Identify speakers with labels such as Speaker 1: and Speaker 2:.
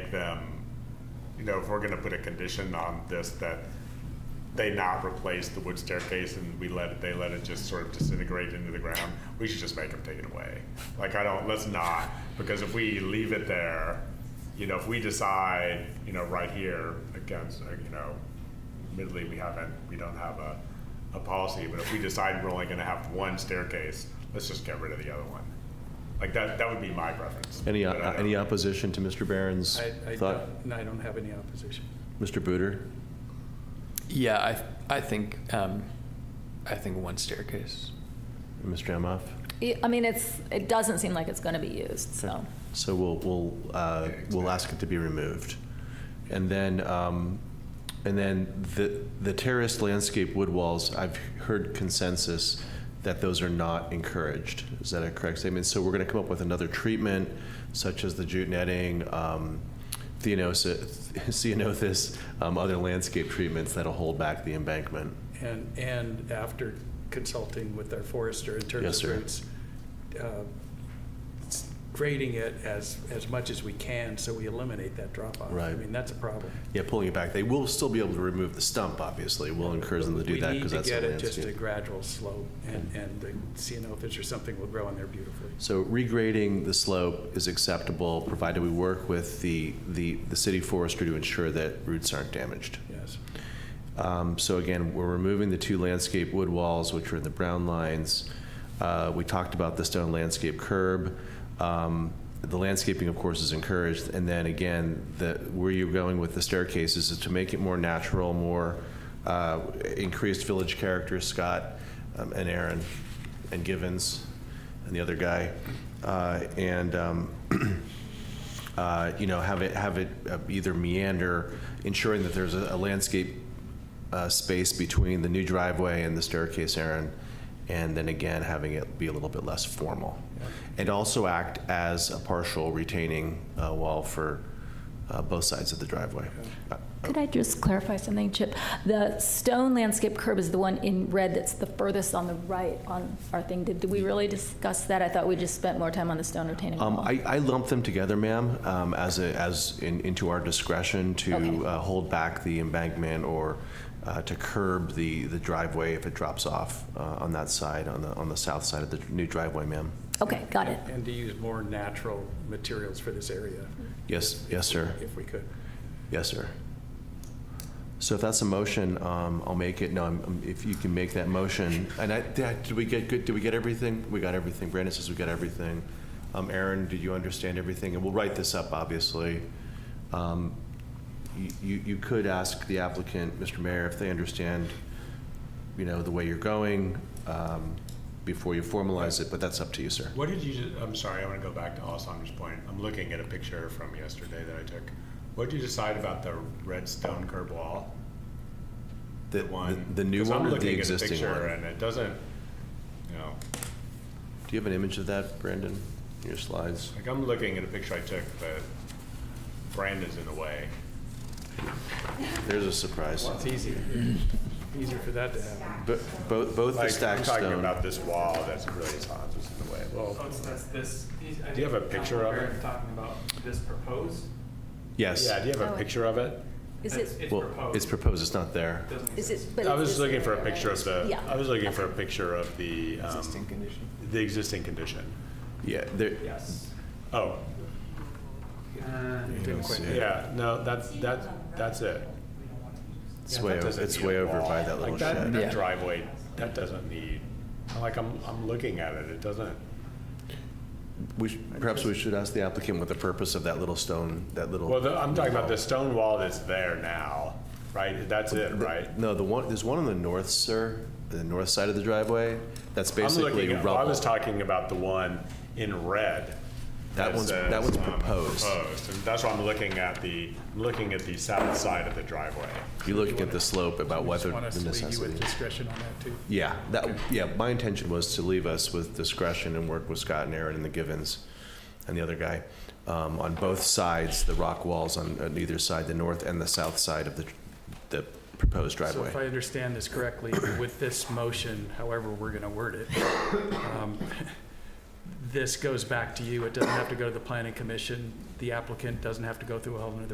Speaker 1: make them, you know, if we're gonna put a condition on this, that they not replace the wood staircase and we let it, they let it just sort of disintegrate into the ground, we should just make them take it away. Like, I don't, let's not, because if we leave it there, you know, if we decide, you know, right here, against, uh, you know, admittedly, we haven't, we don't have a, a policy, but if we decide we're only gonna have one staircase, let's just get rid of the other one. Like, that, that would be my preference.
Speaker 2: Any,
Speaker 1: But I
Speaker 2: uh,
Speaker 1: don't-
Speaker 2: any opposition to Mr. Barron's
Speaker 3: I, I
Speaker 2: thought?
Speaker 3: don't, no, I don't have any opposition.
Speaker 2: Mr. Booter?
Speaker 4: Yeah, I, I think, um, I think one staircase.
Speaker 2: Mr. Amoff?
Speaker 5: Yeah, I mean, it's, it doesn't seem like it's going to be used, so.
Speaker 2: So we'll, we'll, uh, we'll ask it to be removed. And then, um, and then the, the terraced landscape wood walls, I've heard consensus that those are not encouraged. Is that a correct statement? So we're going to come up with another treatment such as the jute netting, um, theanosis, ceanothus, um, other landscape treatments that'll hold back the embankment.
Speaker 3: And, and after consulting with our forester in
Speaker 2: Yes,
Speaker 3: terms of
Speaker 2: sir.
Speaker 3: roots, uh, s- grading it as, as much as we can so we eliminate that drop off. I
Speaker 2: Right.
Speaker 3: mean, that's a problem.
Speaker 2: Yeah, pulling it back. They will still be able to remove the stump, obviously. We'll encourage them to do that because that's
Speaker 3: We
Speaker 2: a
Speaker 3: need to get it just a
Speaker 2: landscape. Mm.
Speaker 3: gradual slope and, and the CNO fish or something will grow in there beautifully.
Speaker 2: So regrading the slope is acceptable, provided we work with the, the, the city forester to ensure that roots aren't damaged.
Speaker 3: Yes.
Speaker 2: Um, So again, we're removing the two landscape wood walls, which are in the brown lines. Uh, We talked about the stone landscape curb. Um, The landscaping, of course, is encouraged. And then again, the, where you're going with the staircases is to make it more natural, more uh, increased village character, Scott um, and Aaron and Givens and the other guy. Uh, And, um, uh, you know, have it, have it uh, either meander, ensuring that there's a a landscape uh, space between the new driveway and the staircase, Aaron, and then again, having it be a little bit less formal. And also act as a partial retaining uh, wall for uh, both sides of the driveway. Uh,
Speaker 5: Could I just clarify something, Chip? The stone landscape curb is the one in red that's the furthest on the right on our thing. Did we really discuss that? I thought we just spent more time on the stone retaining
Speaker 2: Um,
Speaker 5: wall.
Speaker 2: I, I lump them together, ma'am, um, as a, as in, into our discretion to
Speaker 5: Okay.
Speaker 2: uh, hold back the embankment or uh, to curb the, the driveway if it drops off uh, on that side, on the, on the south side of the new driveway, ma'am.
Speaker 5: Okay, got it.
Speaker 3: And to use more natural materials for this area
Speaker 5: Mm.
Speaker 2: Yes, yes, sir.
Speaker 3: if we could.
Speaker 2: Yes, sir. So if that's a motion, um, I'll make it. No, I'm- I'm- if you can make that motion. And I, did did we get good, did we get everything? We got everything. Brandon says we got everything. Um, Aaron, did you understand everything? And we'll write this up, obviously. Um, you- You, you could ask the applicant, Mr. Mayor, if they understand, you know, the way you're going, um, before you formalize it, but that's up to you, sir.
Speaker 1: What did you, ju- I'm sorry, I want to go back to Alessandra's point. I'm looking at a picture from yesterday that I took. What did you decide about the red stone curb wall?
Speaker 2: The-
Speaker 1: one?
Speaker 2: The new
Speaker 1: 'Cause
Speaker 2: one or the
Speaker 1: I'm
Speaker 2: existing
Speaker 1: looking at a picture
Speaker 2: one?
Speaker 1: and it doesn't, you know,
Speaker 2: Do you have an image of that, Brandon, in your slides?
Speaker 1: like I'm looking at a picture I took, but Brandon's in the way.
Speaker 2: There's a surprise.
Speaker 3: It's easy, easier for that to happen.
Speaker 2: Bo- Both, both the
Speaker 1: Like, I'm
Speaker 2: stacked
Speaker 1: talking
Speaker 2: stone.
Speaker 1: about this wall that's really Alessandra's in the way. Well,
Speaker 6: So Oh, it's, that's this. these- I
Speaker 1: Do you
Speaker 6: think
Speaker 1: have a picture of
Speaker 6: Councilman
Speaker 1: it?
Speaker 6: Barrett's Talking about this proposed.
Speaker 2: Yes.
Speaker 1: yeah, do you have a
Speaker 5: Oh.
Speaker 1: picture of it?
Speaker 5: Is
Speaker 6: It's-
Speaker 5: it,
Speaker 6: It's
Speaker 2: Well,
Speaker 6: proposed.
Speaker 2: it's proposed, it's not there.
Speaker 6: Doesn't
Speaker 5: is
Speaker 6: exist.
Speaker 5: it? but
Speaker 1: I
Speaker 5: it's
Speaker 1: was
Speaker 5: just-
Speaker 1: looking for a picture of the,
Speaker 5: Yeah.
Speaker 1: I was looking for a picture of the, um,
Speaker 4: condition.
Speaker 1: the existing condition.
Speaker 2: Yeah, there,
Speaker 6: Yes.
Speaker 1: Oh,
Speaker 6: Uh,
Speaker 3: Didn't quite.
Speaker 1: yeah, no, that's, that's, that's it.
Speaker 2: it's
Speaker 1: Yeah,
Speaker 2: way,
Speaker 1: that
Speaker 2: o-
Speaker 1: doesn't
Speaker 2: it's
Speaker 1: need
Speaker 2: way
Speaker 1: a
Speaker 2: over
Speaker 1: wall.
Speaker 2: by that little
Speaker 1: Like that,
Speaker 2: shed.
Speaker 1: that
Speaker 4: Yeah.
Speaker 1: driveway, that doesn't need, like, I'm, I'm looking at it, it doesn't,
Speaker 2: We, sh- perhaps we should ask the applicant what the purpose of that little stone, that little.
Speaker 1: well, the- I'm talking about the stone wall that's there now, right? That's it, right?
Speaker 2: No, the one, there's one on the north, sir, the north side of the driveway, that's
Speaker 1: I'm
Speaker 2: basically
Speaker 1: looking, at- well, I was
Speaker 2: rubble.
Speaker 1: talking about the one in red.
Speaker 2: That one's,
Speaker 1: says,
Speaker 2: that one's
Speaker 1: um,
Speaker 2: proposed.
Speaker 1: Proposed, and that's why I'm looking at the, I'm looking at the south side of the driveway.
Speaker 2: You're looking at the slope about
Speaker 3: We just
Speaker 2: whether
Speaker 3: want us
Speaker 2: the
Speaker 3: to leave you with
Speaker 2: necessity.
Speaker 3: discretion on that too.
Speaker 2: Yeah, that, yeah, my intention was to leave us with discretion and work with Scott and Aaron and the Givens and the other guy um, on both sides, the rock walls on, on either side, the north and the south side of the, the proposed
Speaker 3: So if I
Speaker 2: driveway.
Speaker 3: understand this correctly, with this motion, however we're going to word it, um, this goes back to you. It doesn't have to go to the planning commission. the applicant doesn't have to go through a whole nother